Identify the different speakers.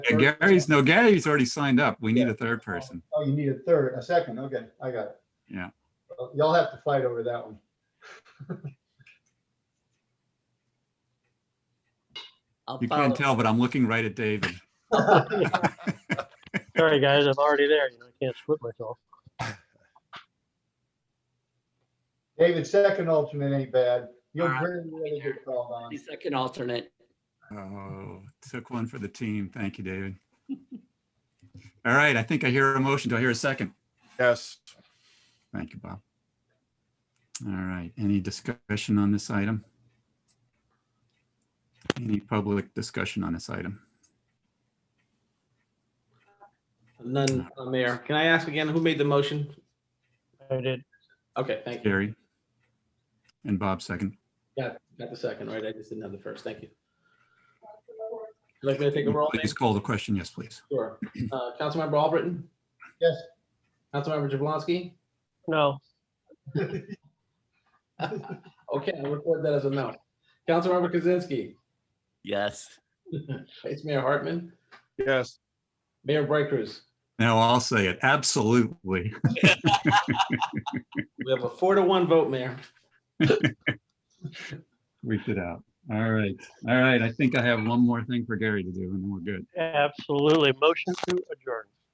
Speaker 1: Yeah, Gary's, no, Gary's already signed up. We need a third person.
Speaker 2: Oh, you need a third, a second, okay, I got it.
Speaker 1: Yeah.
Speaker 2: Well, Y'all have to fight over that one.
Speaker 3: I'll
Speaker 1: You
Speaker 3: follow.
Speaker 1: can't tell, but I'm looking right at David.
Speaker 4: Sorry, guys, I'm already there. You know, I can't split myself.
Speaker 2: David, second alternate ain't bad. You'll
Speaker 3: All right.
Speaker 2: really, really get called on.
Speaker 3: The second alternate.
Speaker 1: Oh, took one for the team. Thank you, David. All right, I think I hear a motion. Do I hear a second?
Speaker 5: Yes,
Speaker 1: Thank you, Bob. All right, any discussion on this item? Any public discussion on this item?
Speaker 6: None, uh, Mayor. Can I ask again, who made the motion?
Speaker 4: I did.
Speaker 6: Okay, thank you.
Speaker 1: Gary? And Bob second.
Speaker 6: Got, got the second, right? I just didn't have the first. Thank you. Would you Like me to take a roll? Mayor?
Speaker 1: Please call the question. Yes, please.
Speaker 6: Sure. Uh, Councilmember Albritton?
Speaker 2: Yes.
Speaker 6: Councilmember Jablonski?
Speaker 4: No,
Speaker 6: Okay, I'll record that as a no. Councilmember Kaczynski?
Speaker 7: Yes.
Speaker 6: Vice Mayor Hartman?
Speaker 5: yes,
Speaker 6: Mayor Bright Cruz?
Speaker 1: Now I'll say it. Absolutely.
Speaker 6: We have a four to one vote, Mayor.
Speaker 1: Reach it out. All right, all right. I think I have one more thing for Gary to do and then we're good.
Speaker 4: absolutely. Motion to adjourn.